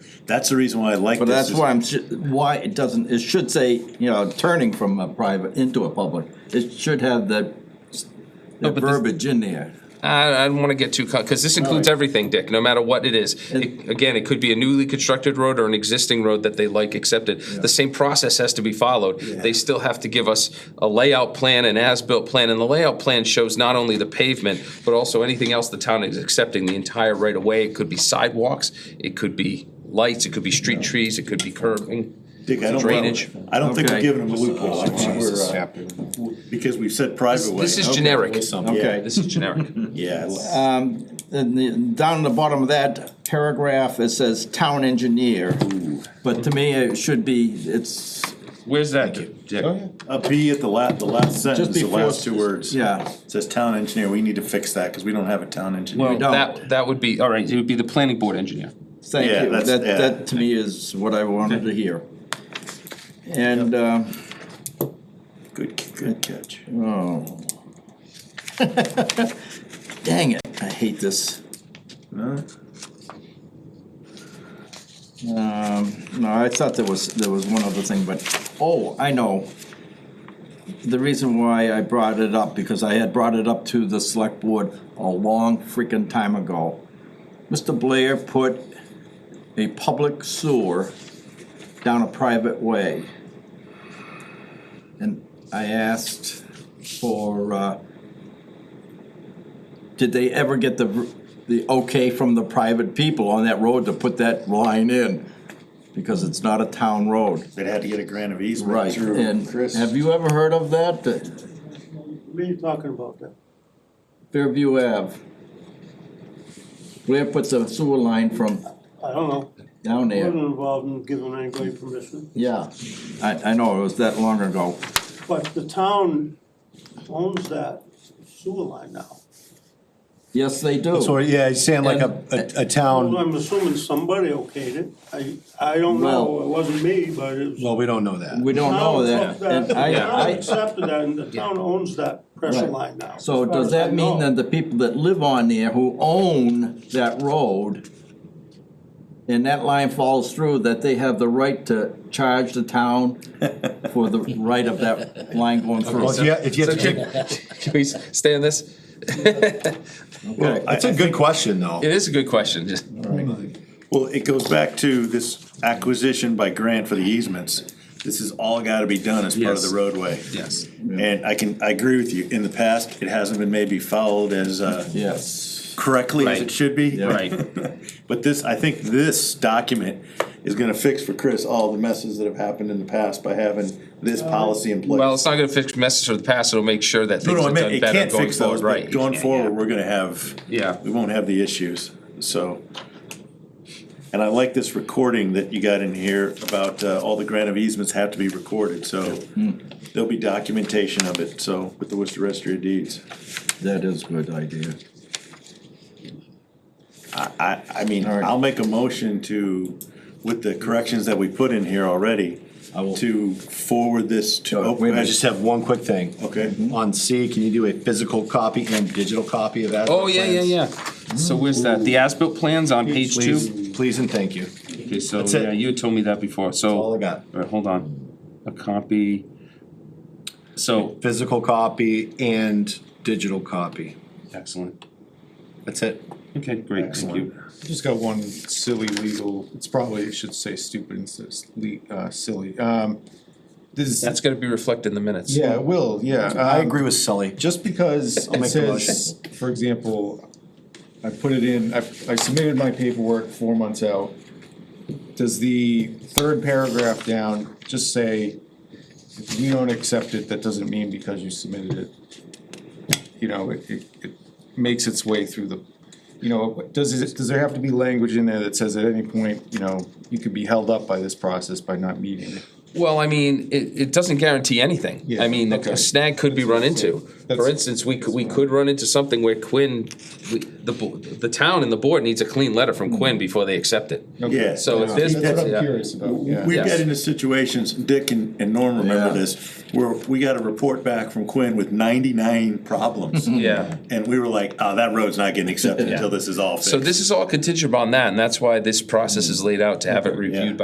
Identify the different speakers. Speaker 1: That's the reason why I like
Speaker 2: But
Speaker 1: this.
Speaker 2: that's
Speaker 1: is-
Speaker 2: why I'm, sh- why it doesn't, it should say, you know, turning from a private into a public. It should have the, the
Speaker 3: but this-
Speaker 2: verbiage in there.
Speaker 3: I, I don't want to get too, because this includes everything, Dick, no matter what it is. It- Again, it could be a newly constructed road or an existing road that they like accepted. The same process has to be followed. They still have to give us a layout plan, an as-built plan, and the layout plan shows not only the pavement, but also anything else the town is accepting, the entire right-of-way. It could be sidewalks, it could be lights, it could be street trees, it could be curbing.
Speaker 1: Dick, I don't,
Speaker 3: Drainage.
Speaker 1: I don't think we're
Speaker 2: Okay.
Speaker 1: giving them a loophole. I think we're, uh, Because we've said private way.
Speaker 3: This is generic.
Speaker 1: Yeah.
Speaker 2: Okay. Um,
Speaker 3: This is generic.
Speaker 1: Yeah.
Speaker 2: uh, And the, down the bottom of that paragraph, it says town engineer. But to me, it should be, it's,
Speaker 3: Where's that, Dick?
Speaker 1: A B uh, at the last, the last sentence, the
Speaker 2: before-
Speaker 1: last two words.
Speaker 2: yeah.
Speaker 1: Says town engineer, we need to fix that, cause we don't have a town engineer.
Speaker 2: don't.
Speaker 3: That, that would be, all right, it would be the planning board engineer.
Speaker 2: Thank
Speaker 1: Yeah,
Speaker 2: you.
Speaker 1: that's-
Speaker 2: That,
Speaker 1: yeah.
Speaker 2: that to me is what I wanted to hear. And, uh,
Speaker 1: Good, good catch.
Speaker 2: oh. Dang it, I hate this.
Speaker 1: Huh?
Speaker 2: Um, no, I thought there was, there was one other thing, but, oh, I know. The reason why I brought it up, because I had brought it up to the select board a long freaking time ago. Mr. Blair put a public sewer down a private way. And I asked for, uh, did they ever get the, the okay from the private people on that road to put that line in? Because it's not a town road.
Speaker 1: They'd had to get a grant of easement
Speaker 2: Right,
Speaker 1: through.
Speaker 2: and have you ever heard of that, that
Speaker 4: What are you talking about now?
Speaker 2: Fairview Ave? Blair puts a sewer line from
Speaker 4: I don't know.
Speaker 2: down
Speaker 4: I
Speaker 2: there,
Speaker 4: wasn't involved in giving anybody permission,
Speaker 2: yeah, I, I know, it was that long ago,
Speaker 4: but the town owns that sewer line now.
Speaker 2: yes, they
Speaker 5: So,
Speaker 2: do.
Speaker 5: yeah, he's saying like a, a a
Speaker 2: Um,
Speaker 4: Well,
Speaker 5: town,
Speaker 4: I'm assuming somebody okayed it. I, I don't know.
Speaker 2: Well-
Speaker 4: It wasn't me, but it was.
Speaker 5: well, we don't know that.
Speaker 2: We don't know
Speaker 4: Town took
Speaker 2: that, and
Speaker 4: The town
Speaker 2: I, I,
Speaker 4: accepted that and the town owns that pressure
Speaker 2: Right.
Speaker 4: line now.
Speaker 2: so
Speaker 4: as far
Speaker 2: does
Speaker 4: as I
Speaker 2: that mean
Speaker 4: know.
Speaker 2: that the people that live on there who own that road and that line falls through, that they have the right to charge the town for the right of that line going through?
Speaker 5: Well, if you, if you have to take-
Speaker 3: Can we stay on this?
Speaker 2: Okay.
Speaker 5: that's a good question, though.
Speaker 3: It is a good question. Just-
Speaker 1: Well, it goes back to this acquisition by grant for the easements. This has all gotta be done as part of the
Speaker 3: Yes.
Speaker 1: roadway.
Speaker 3: Yes.
Speaker 1: And I can, I agree with you, in the past, it hasn't been maybe followed as, uh,
Speaker 2: Yes.
Speaker 1: correctly as
Speaker 3: Right.
Speaker 1: it should be.
Speaker 3: Right.
Speaker 1: But this, I think this document is gonna fix for Chris all the messes that have happened in the past by having this policy in place.
Speaker 3: Well, it's not gonna fix messages of the past, it'll make sure that
Speaker 1: No,
Speaker 3: things
Speaker 1: no, I
Speaker 3: are
Speaker 1: meant,
Speaker 3: done
Speaker 1: it
Speaker 3: better
Speaker 1: can't
Speaker 3: going
Speaker 1: fix
Speaker 3: forward,
Speaker 1: those,
Speaker 3: right?
Speaker 1: but going forward, we're gonna have.
Speaker 3: Yeah.
Speaker 1: We won't have the issues, so. And I like this recording that you got in here about, uh, all the grant of easements have to be recorded, so
Speaker 2: Hmm.
Speaker 1: there'll be documentation of it, so, with the Worcester Registry of Deeds.
Speaker 2: That is a good idea.
Speaker 1: I, I mean,
Speaker 2: All right.
Speaker 1: I'll make a motion to, with the corrections that we put in here already,
Speaker 2: I will-
Speaker 1: to forward this to.
Speaker 2: Oh, wait a
Speaker 5: I
Speaker 2: minute.
Speaker 5: just have one quick thing.
Speaker 1: Okay.
Speaker 5: On C, can you do a physical copy and digital copy of that?
Speaker 3: Oh, yeah, yeah, yeah. So where's that? The as-built plans on page two?
Speaker 5: Please, please and thank you.
Speaker 3: Okay, so,
Speaker 5: That's it.
Speaker 3: Oh, yeah, you had told me that before, so.
Speaker 5: all I got.
Speaker 3: All right, hold on. A copy. So,
Speaker 5: Physical copy and digital copy.
Speaker 3: excellent.
Speaker 5: That's it.
Speaker 3: Okay, great, thank you.
Speaker 6: Just got one silly legal, it's probably, it should say stupid instead of le- uh, silly. Um, This,
Speaker 3: That's gonna be reflected in the minutes.
Speaker 6: yeah, it will, yeah.
Speaker 5: I
Speaker 6: um,
Speaker 5: agree with Sully.
Speaker 6: Just because
Speaker 5: I'll
Speaker 6: it
Speaker 5: make the
Speaker 6: says, for example, I put it in, I, I submitted my paperwork four months out. Does the third paragraph down just say, if you don't accept it, that doesn't mean because you submitted it? You know, it, it, it makes its way through the, you know, does it, does there have to be language in there that says at any point, you know, you could be held up by this process by not meeting it?
Speaker 3: Well, I mean, it, it doesn't guarantee anything. I
Speaker 6: Yeah,
Speaker 3: mean,
Speaker 6: okay.
Speaker 3: a snag could be run into. For
Speaker 6: That's-
Speaker 3: instance, we could, we could run into something where Quinn, we- the, bo- the town and the board needs a clean letter
Speaker 1: Mm-hmm.
Speaker 3: from Quinn before they accept it.
Speaker 1: Yeah.
Speaker 3: So if there's.
Speaker 6: That's what I'm
Speaker 3: yeah.
Speaker 6: curious about, yeah.
Speaker 1: We
Speaker 3: Yes.
Speaker 1: get into situations, Dick and, and Norm remember
Speaker 2: Yeah.
Speaker 1: this, where we got a report back from Quinn with ninety-nine problems.
Speaker 3: Yeah.
Speaker 1: And we were like, oh, that road's not getting accepted
Speaker 3: Yeah.
Speaker 1: until this is all fixed.
Speaker 3: So this is all contingent upon that, and that's why this process is laid out to have it reviewed by.